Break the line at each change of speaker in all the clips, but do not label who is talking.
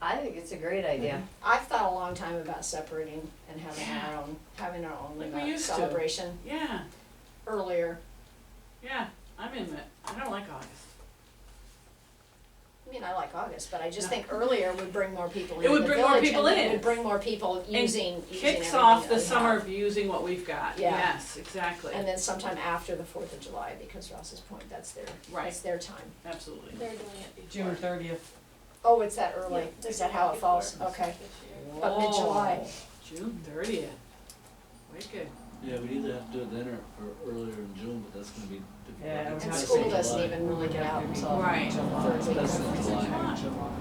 I think it's a great idea.
Mhm.
I've thought a long time about separating and having our own, having our own
Like we
Lima
used to.
celebration
Yeah,
earlier.
yeah, I'm in it. I don't like August.
I mean, I like August, but I just
No.
think earlier would bring more people
It
into
would
the
bring more
village and
people
it
in.
would bring more people using, using everything
Kicks off
that
the
we
summer
have.
of using what we've got.
Yeah.
Yes, exactly.
And then sometime after the Fourth of July, because Ross's point, that's their,
Right.
it's their time.
Absolutely.
They're doing it before.
June thirtieth.
Oh, it's that early,
Yeah,
is
they're
that how
doing
it falls?
before
Okay,
this year.
but mid-July.
Whoa, June thirtieth. Wicked.
Yeah, we either have to do it then or, or earlier in June, but that's gonna be difficult.
Yeah, it would
It's
And
have
best
to
school
in
doesn't
July.
even really get out until
Right.
third
It's
week
best
of,
in July.
July.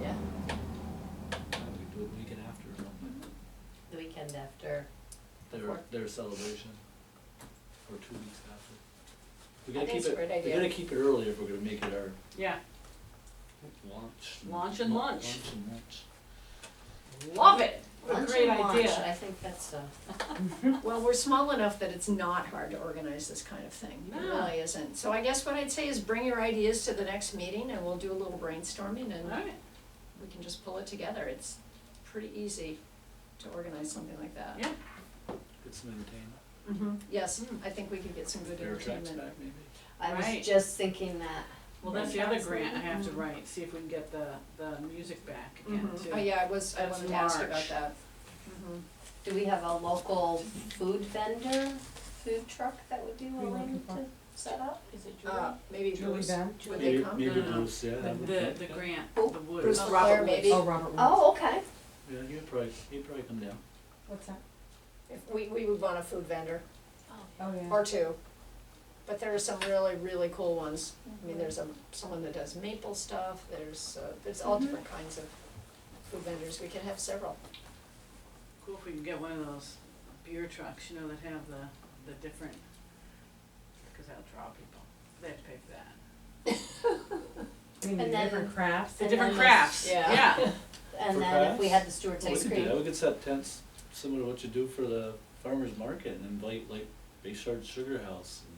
yeah.
Uh, We do it weekend after or something,
The weekend after.
their, their celebration, or two weeks after.
I
We gotta
think
keep
it's a
it,
great
we
idea.
gotta keep it earlier if we're gonna make it our
Yeah,
launch.
Launch and
lu-
lunch.
Launch and lunch.
love it. What a
Lunch
great
and watch, I
idea.
think that's a,
Well, we're small enough that it's not hard to organize this kind of thing. It
No.
really isn't. So I guess what I'd say is bring your ideas to the next meeting and we'll do a little brainstorming
All
and
right.
we can just pull it together. It's pretty easy to organize something like that.
Yeah.
Get some entertainment.
Mm-hmm.
hmm yes,
Mm.
I think we could get some good
Air tracks
entertainment.
back maybe.
I
Right.
was just thinking that.
Well, that's the other
Workshops,
grant I have to
mhm.
write, see if we can get the, the music back again
Mm-hmm.
Mhm.
too.
Oh, yeah, I was, I
That's
wanted to ask
March.
about that.
Mm-hmm.
Do we have a local food vendor, food truck that would be
Who you
willing
looking
to set up?
Is it
Uh,
July?
maybe
Julie
Bruce,
Ben?
would they
Maybe-
come?
Maybe
No, no.
Bruce, yeah. that would
The, the
be- yeah.
grant, the
Oh,
Woods.
Bruce
Oh,
Leclerc,
Robert
maybe.
Oh, Robert Woods.
Oh, okay.
Yeah, he'd probably, he'd probably come down.
What's that?
If We, we would want a food vendor
Oh, yeah.
or two. But there are some really, really cool ones.
Mm-hmm.
I mean, there's a, someone that does maple stuff, there's, uh, there's all different kinds of food vendors, we could have several.
Cool if we can get one of those beer trucks, you know, that have the, the different, cause that'll draw people. They have to pay for that.
I mean, the
And then-
different crafts.
The
And
different
then there's-
crafts,
yeah.
yeah.
And
For
then if we
crafts?
had the Stewart's
Well, We
ice
could do that,
cream,
we could set tents similar to what you do for the farmer's market and invite like Bayshard Sugar House and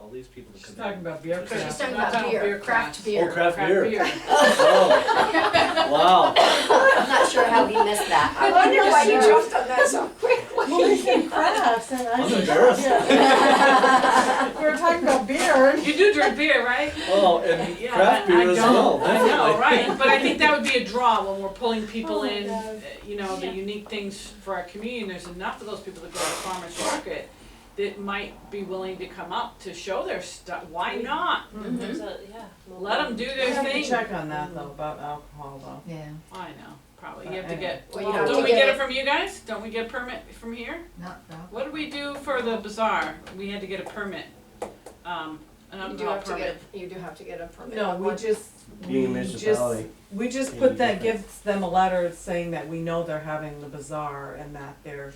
all these people to
She's
come in.
talking about beer
Just-
She's
crafts.
talking
Not
about
about
beer,
beer
craft
crafts.
beer.
Oh, craft beer.
beer.
Oh, wow,
I'm not sure how we missed that.
I wonder why you
Sure.
jumped on that so quickly.
Well, they said crafts and I
I'm
said,
embarrassed.
yeah. We were talking about beer and
You do drink beer, right?
Oh, and
Yeah,
craft
I- I
beer as well,
don't. I know,
definitely.
right, but I think that would be a draw when we're pulling people
Oh my
in,
God.
uh, you know, the
Yeah.
unique things for our community, and there's enough of those people that go to the farmer's market that might be willing to come up to show their stuff, why not?
There's a- yeah.
Mm-hmm.
Let them do
We
their
have to
thing.
check on that though, about alcohol though.
Yeah,
I know, probably, you have to get,
Well, you have to
don't we
get
get
it-
it from you guys? Don't we get a permit from here?
not though.
What did we do for the bazaar? We had to get a permit, um,
You do
an alcohol
have to
permit.
get, you do have to get a permit.
No,
on
we
one.
just, we
Being a
just,
municipality.
we just
may
put
be
that,
different.
gives them a letter saying that we know they're having the bazaar and that their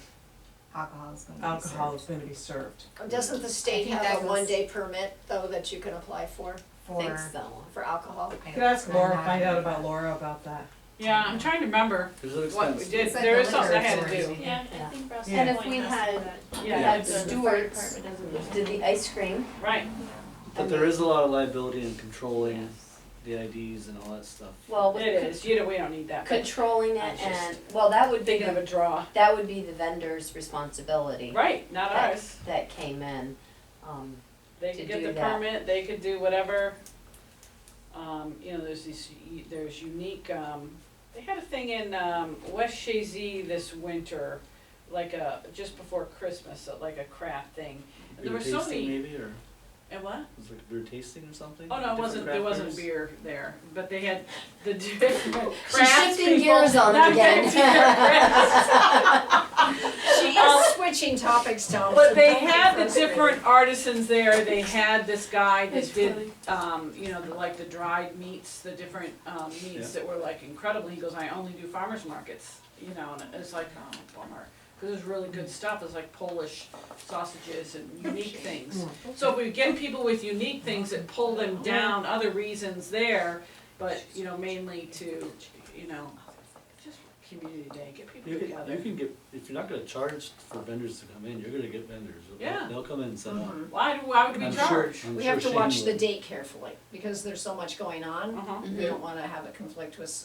Alcohol is gonna be served.
alcohol is gonna be served.
Doesn't the state
I think that
have a
was-
one-day permit, though, that you can apply for,
For.
Think so.
for alcohol?
I-
Could ask
I'm
Laura,
not-
find out about Laura about that.
Yeah, I'm trying to remember
There's an
what we
expense.
did,
It's like
there
the
was something I
liquor
had to do.
authority.
Yeah, I
Yeah.
think Russ.
And
if we had- We
Yeah. uh,
had
The fire
Stewart's,
department doesn't really-
did the ice cream.
Right.
But there is a lot of liability in controlling the IDs and all that stuff.
Well,
It
with
is, you know, we don't need that. but
controlling
I
it
was just
and, well, that would be,
Thinking of a
the-
draw.
that would be the vendor's responsibility.
Right, not
that-
ours.
That came in, um,
They
to
could get
do
the
that.
permit, they could do whatever. Um, you know, there's these, u- there's unique, um, they had a thing in, um, West Shazy this winter, like a, just before Christmas, so like a craft thing. And there
Beer
were so
tasting
many,
maybe, or
and what?
was it beer tasting or something?
Oh, no, it
Different
wasn't, there
craft
wasn't beer
beers?
there, but they had the different
She's
crafts
shifting
people.
gears on
Not
it again.
different crafts.
She is switching topics, Tom.
But
so
they
don't get
had the
frustrated.
different artisans there, they had this guy
That's
that
funny.
did, um, you know, the, like the dried meats, the different, um, meats that were like incredible, he goes, I only do farmers markets, you know, and it's like, oh, bummer. Cause there's really good stuff, it's like Polish sausages and unique things. So if we get people with unique things that pull them down, other reasons there, but, you know, mainly to, you know, just community day, get people
You can, you
together.
can get, if you're not gonna charge for vendors to come in, you're gonna get vendors. They'll-
Yeah. Mm-hmm.
They'll come in and set up.
Why, do- why would we
I'm
charge?
sure, I'm sure
We have to
Shane
watch the
will.
date carefully, because there's so much going on,
Uh-huh.
we don't wanna have it conflict with